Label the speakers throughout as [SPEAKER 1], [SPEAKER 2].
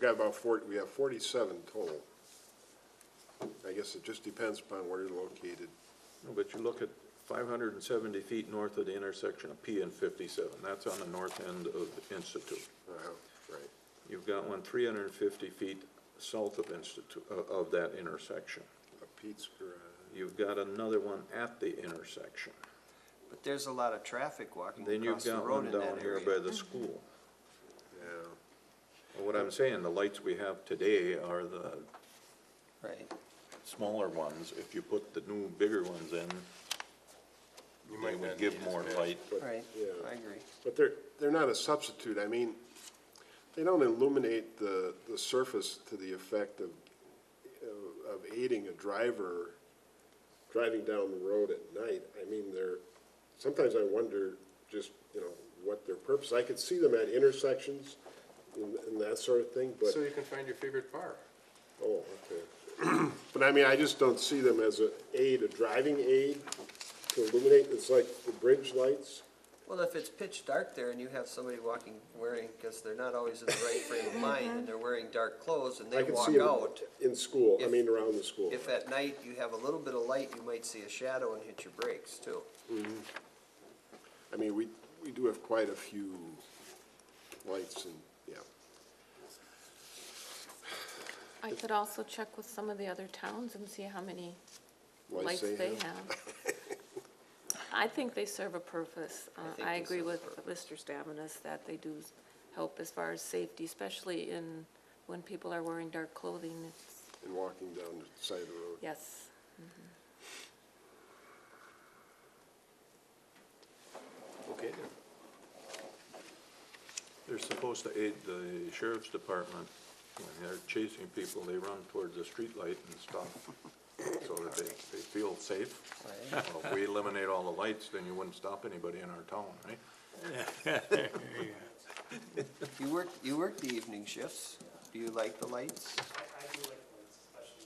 [SPEAKER 1] got about forty, we have forty-seven total. I guess it just depends upon where you're located.
[SPEAKER 2] No, But you look at five hundred and seventy feet north of the intersection of P and fifty-seven, that's on the north end of Institute.
[SPEAKER 1] Uh, Right.
[SPEAKER 2] You've got one three hundred and fifty feet south of Institute, of, of that intersection.
[SPEAKER 1] A Pete's Garage.
[SPEAKER 2] You've got another one at the intersection.
[SPEAKER 3] But there's a lot of traffic walking
[SPEAKER 2] Then you've
[SPEAKER 3] across the
[SPEAKER 2] got
[SPEAKER 3] road
[SPEAKER 2] one
[SPEAKER 3] in that
[SPEAKER 2] down here by
[SPEAKER 3] area.
[SPEAKER 2] the school.
[SPEAKER 1] Yeah.
[SPEAKER 2] Well, What I'm saying, the lights we have today are the
[SPEAKER 3] Right.
[SPEAKER 2] smaller ones. If you put the new, bigger ones in, they would give more light.
[SPEAKER 1] but-
[SPEAKER 3] Right,
[SPEAKER 1] yeah.
[SPEAKER 3] I agree.
[SPEAKER 1] But they're, they're not a substitute, I mean, they don't illuminate the, the surface to the effect of, of aiding a driver driving down the road at night. I mean, they're, sometimes I wonder just, you know, what their purpose, I could see them at intersections and, and that sort of thing, but,
[SPEAKER 4] So you can find your favorite bar.
[SPEAKER 1] oh, okay. But I mean, I just don't see them as a aid, a driving aid to illuminate, it's like the bridge lights.
[SPEAKER 3] Well, if it's pitch dark there and you have somebody walking wearing, because they're not always in the right frame of mind and they're wearing dark clothes and
[SPEAKER 1] I
[SPEAKER 3] they
[SPEAKER 1] can
[SPEAKER 3] walk
[SPEAKER 1] see 'em
[SPEAKER 3] out,
[SPEAKER 1] In school, I
[SPEAKER 3] If-
[SPEAKER 1] mean, around the school.
[SPEAKER 3] if at night you have a little bit of light, you might see a shadow and hit your brakes too.
[SPEAKER 1] I mean, we, we do have quite a few lights and, yeah.
[SPEAKER 5] I could also check with some of the other towns and see how many
[SPEAKER 1] lights
[SPEAKER 5] lights they have. I think they serve a purpose. Uh,
[SPEAKER 3] think
[SPEAKER 5] I
[SPEAKER 3] they
[SPEAKER 5] agree
[SPEAKER 3] serve a
[SPEAKER 5] with Mr. Staminus that they do help as far as safety, especially in, when people are wearing dark clothing. It's-
[SPEAKER 1] And walking down the side of the road.
[SPEAKER 5] Yes.
[SPEAKER 4] Okay then.
[SPEAKER 2] They're supposed to aid the sheriff's department. When they're chasing people, they run towards the streetlight and stop so that they, they feel safe.
[SPEAKER 3] Right.
[SPEAKER 2] Well, If we eliminate all the lights, then you wouldn't stop anybody in our town, right?
[SPEAKER 3] You work, you work the evening shifts. Do you like the lights
[SPEAKER 6] I, I do like lights,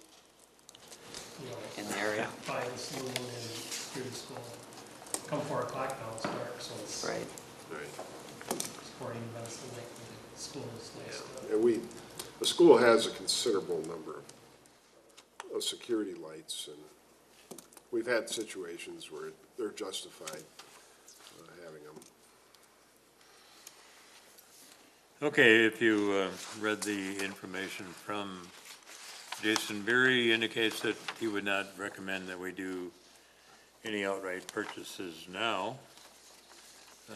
[SPEAKER 6] especially
[SPEAKER 3] in the area?
[SPEAKER 6] by the school and through the school. Come four o'clock now, it's dark, so it's
[SPEAKER 3] Right.
[SPEAKER 6] sporting events and like the school's nice.
[SPEAKER 1] And we, the school has a considerable number of- of security lights and we've had situations where they're justified uh, having them.
[SPEAKER 7] Okay, if you uh, read the information from Jason Berry indicates that he would not recommend that we do any outright purchases now,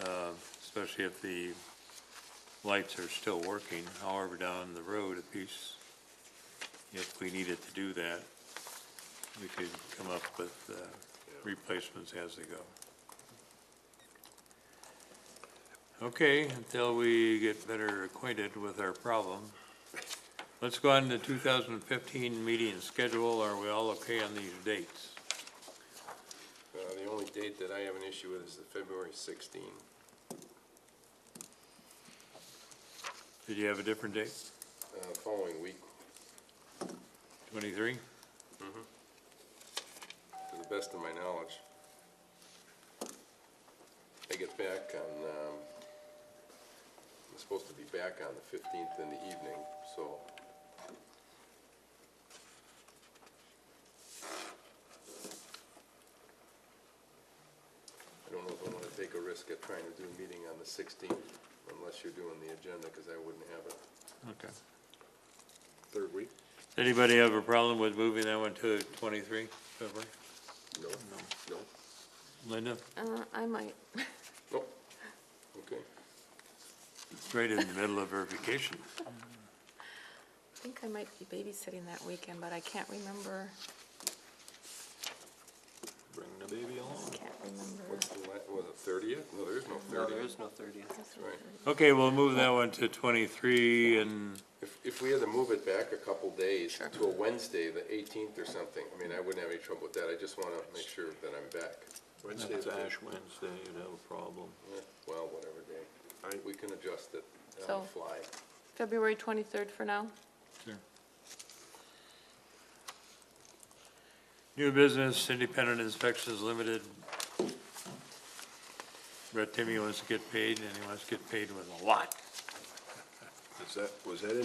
[SPEAKER 7] uh, especially if the lights are still working, however down the road a piece, if we needed to do that, we could come up with uh, replacements as they go. Okay, until we get better acquainted with our problem. Let's go on to 2015 meeting schedule. Are we all okay on these dates?
[SPEAKER 4] Uh, the only date that I have an issue with is the February sixteen.
[SPEAKER 7] Did you have a different date?
[SPEAKER 4] Uh, following week,
[SPEAKER 7] 23?
[SPEAKER 4] to the best of my knowledge. I get back on, um, I'm supposed to be back on the fifteenth in the evening, so. I don't know if I wanna take a risk at trying to do a meeting on the sixteenth, unless you're doing the agenda, cause I wouldn't have it.
[SPEAKER 7] Okay.
[SPEAKER 1] Third week?
[SPEAKER 7] Anybody have a problem with moving that one to 23 February?
[SPEAKER 1] No, no.
[SPEAKER 7] Linda,
[SPEAKER 5] Uh, I might,
[SPEAKER 4] Nope. Okay.
[SPEAKER 7] right in the middle of her vacation.
[SPEAKER 5] I think I might be babysitting that weekend, but I can't remember,
[SPEAKER 2] Bring the baby along.
[SPEAKER 5] can't remember.
[SPEAKER 4] What's the, la- was it thirtieth? No, there is no
[SPEAKER 3] No, there
[SPEAKER 4] thirtieth.
[SPEAKER 3] is no thirtieth.
[SPEAKER 4] right.
[SPEAKER 7] Okay, we'll move that one to 23 and,
[SPEAKER 4] If, if we had to move it back a couple days to a Wednesday, the eighteenth or something, I mean, I wouldn't have any trouble with that. I just wanna make sure that I'm back.
[SPEAKER 1] Wednesday,
[SPEAKER 2] It's
[SPEAKER 1] the
[SPEAKER 2] Ash Wednesday, you'd have a problem.
[SPEAKER 4] Eh, Well, whatever day. We can adjust it on
[SPEAKER 5] So-
[SPEAKER 4] the fly.
[SPEAKER 5] February 23rd for now?
[SPEAKER 7] new business, independent inspections limited. Brett Timmy wants to get paid and he wants to get paid with a lot.
[SPEAKER 1] Is that, was that